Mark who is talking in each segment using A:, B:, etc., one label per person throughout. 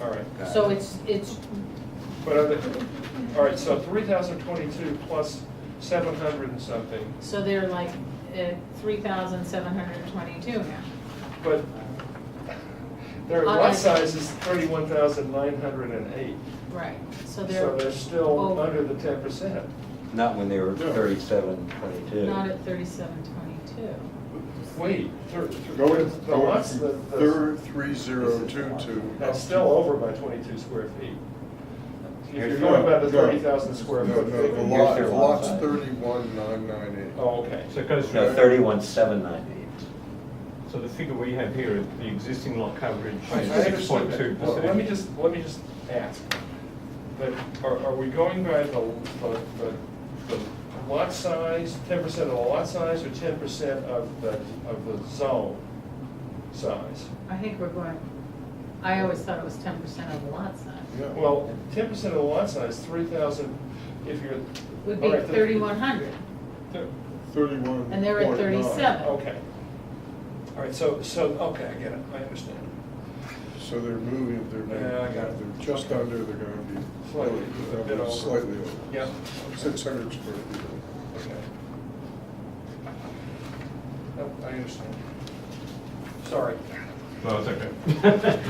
A: all right.
B: Got
C: So
B: it.
C: it's, it's,
A: But, are the- all right, so three thousand twenty-two plus seven hundred and something,
C: so they're like uh, three thousand seven hundred and twenty-two now.
A: but their
C: All
A: lot
C: right.
A: size is thirty-one thousand nine hundred and eight.
C: Right, so
A: So they're
C: they're
A: still
C: over.
A: under the ten percent.
B: Not when they were
D: No.
B: thirty-seven, twenty-two.
C: not at thirty-seven twenty-two.
A: Wait, thir-
D: Go in,
A: the
D: go in
A: lots, the,
D: from
A: the,
D: third, three zero two two.
A: that's still over by twenty-two square feet. If you're
B: Here's-
A: going by the
D: No, no.
A: thirty thousand square
D: No,
A: foot
D: no, the
A: figure.
B: Here's
D: lot,
B: their
D: the
B: lot
D: lot's
B: size.
D: thirty-one nine nine eight.
A: Oh, okay.
E: So it goes
B: No,
E: from,
B: thirty-one, seven ninety-eight.
E: so the figure we have here, the existing lot coverage
A: I I
E: is six
A: understand
E: point
A: that.
E: two
A: Well,
E: percent.
A: Let me just, let me just ask, that, are, are we going by the, the, the- the lot size, ten percent of the lot size, or ten percent of the, of the zone size?
C: I think we're going, I always thought it was ten percent of the lot size.
D: Yeah.
A: Well, ten percent of the lot size, three thousand, if you're.
C: Would be
A: all right, the-
C: thirty-one hundred,
A: the-
D: Thirty-one.
C: And they're at 37.
A: Okay. All right, so, so, okay, I get it, I understand.
D: So they're moving, they're,
A: Yeah, I got it.
D: they're just under, they're gonna be.
A: Slightly, a bit over.
D: Slightly over.
A: Yeah.
D: Six hundred square feet. over.
A: Okay. Nope, I understand. Sorry.
E: No, it's okay.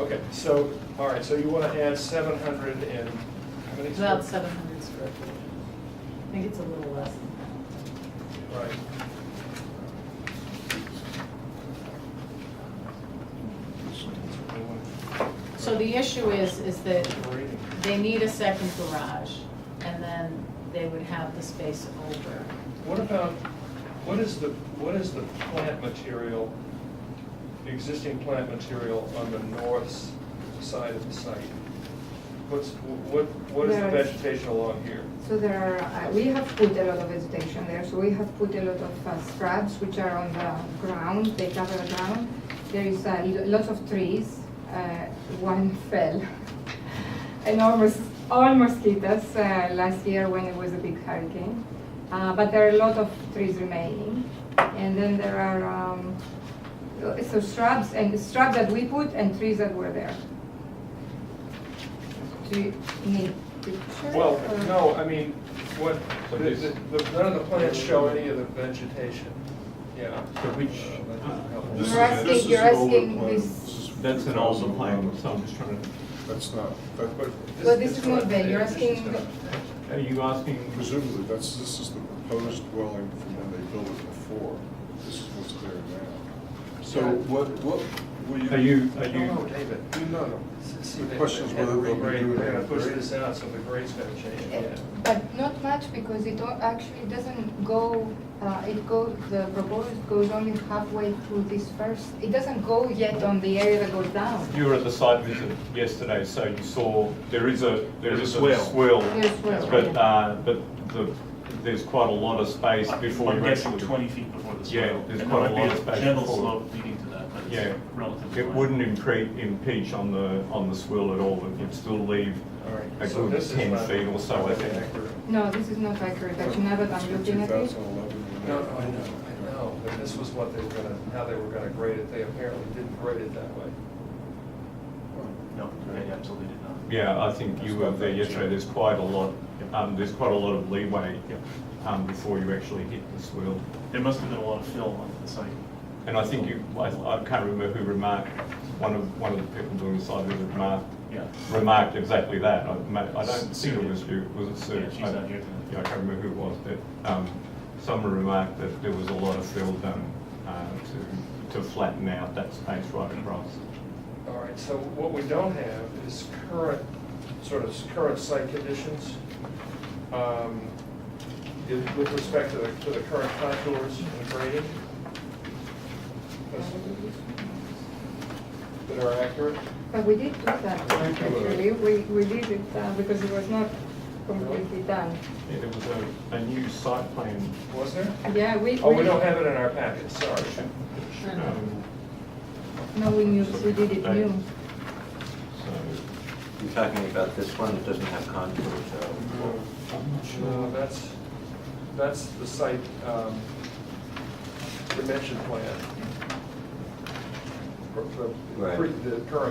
A: Okay, so, all right, so you want to add seven hundred and, how many?
C: it's about
A: square-
C: seven hundred square feet. I think it's a little less than
A: Right.
C: that. So the issue is, is that
A: Reading.
C: they need a second garage, and then they would have the space over.
A: What about, what is the, what is the plant material, the existing plant material on the north s- side of the site? What's, what, what is the
F: There is-
A: vegetation along here?
F: So there are, uh, we have put a lot of vegetation there, so we have put a lot of uh, shrubs which are on the ground, they cover the ground. There is uh, lo- lots of trees, uh, one fell. Enormous, all mosquitoes uh, last year when it was a big hurricane. Uh, But there are a lot of trees remaining. And then there are, um, so shrubs, and shrubs that we put and trees that were there. Do you need pictures?
A: Well,
F: or-
A: no, I mean, what,
E: So
A: the-
E: this-
A: the- the- none of the plants show any of the vegetation, yeah.
E: So which-
A: Uh, that doesn't help.
D: This is-
F: You're asking-
D: this is
F: you're
D: an older
F: asking
D: plan.
F: this-
D: This is
E: That's an older plan,
D: 2011.
E: so I'm just trying to,
D: That's not, that, but
F: Well, this is not bad. You're
A: this is
F: asking-
A: not-
E: are you asking,
D: presumably, that's, this is the proposed dwelling from when they built it before. This is what's there now. So what, what, will you?
E: are you, are
A: No, no,
E: you,
A: David.
D: No, no.
A: See,
D: The
A: they-
D: question is
A: they had to
D: whether they'll be
A: regrade.
D: doing
A: They're gonna
D: it
A: push
D: great.
A: this out, so the grade's gonna change, yeah.
F: But not much because it don't- actually doesn't go, uh, it goes, the proposed goes only halfway through this first, it doesn't go yet on the area that goes down.
E: you were at the site visit yesterday, so you saw, there is a, there
A: There's
E: is
A: a
E: a
A: swell.
E: swell.
F: There's swell,
E: But,
F: yeah.
E: uh, but the, there's quite a lot of space before
G: I'm
E: you
G: guessing
E: actually.
G: twenty feet before the
E: Yeah,
G: swale.
E: there's
G: And
E: quite
G: there
E: a
G: might be
E: lot of space
G: Gentle
E: before.
G: slope leading to that, but
E: Yeah,
G: it's relatively.
E: it
G: flat.
E: wouldn't impre- impeach on the, on the swell at all, it would still leave
A: All right,
E: a
A: so
E: good
A: this is
E: ten
A: not-
E: feet or so, I think.
A: accurate.
F: No, this is not accurate, actually, now that I'm looking at it.
D: 2011.
A: No, no, I know, I know, but this was what they were gonna, how they were gonna grade it, they apparently didn't grade it that way.
G: No, they absolutely did not.
E: Yeah, I think you were there yesterday, there's quite a lot, um, there's quite a lot of leeway, um, before you actually hit the swell.
G: There must have been a lot of fill on the site.
E: And I think you, I, I can't remember who remarked, one of, one of the people doing the site visit remarked,
G: Yeah.
E: remarked exactly that. I, ma- I don't think it was you, was it Sue?
G: Yeah, she's
E: I-
G: not here tonight.
E: Yeah, I can't remember who it was, but, um, someone remarked that there was a lot of fill done, uh, to, to flatten out that space right across.
A: All right, so what we don't have is current, sort of current site conditions um, in- with respect to the, to the current contours and grading. That are accurate.
F: But we did do that, actually, we, we did it uh, because it was not completely done.
E: Yeah, there was a, a new site plan,
A: Was there?
F: Yeah, we.
A: Oh, we don't have it in our packet, sorry.
E: um,
F: No, we knew, we did it new.
E: so.
B: You're talking about this one that doesn't have contours,
A: Mm-hmm.
B: so.
A: No, Uh, that's, that's the site um, dimension plan. For- for-
B: Right.
A: for The current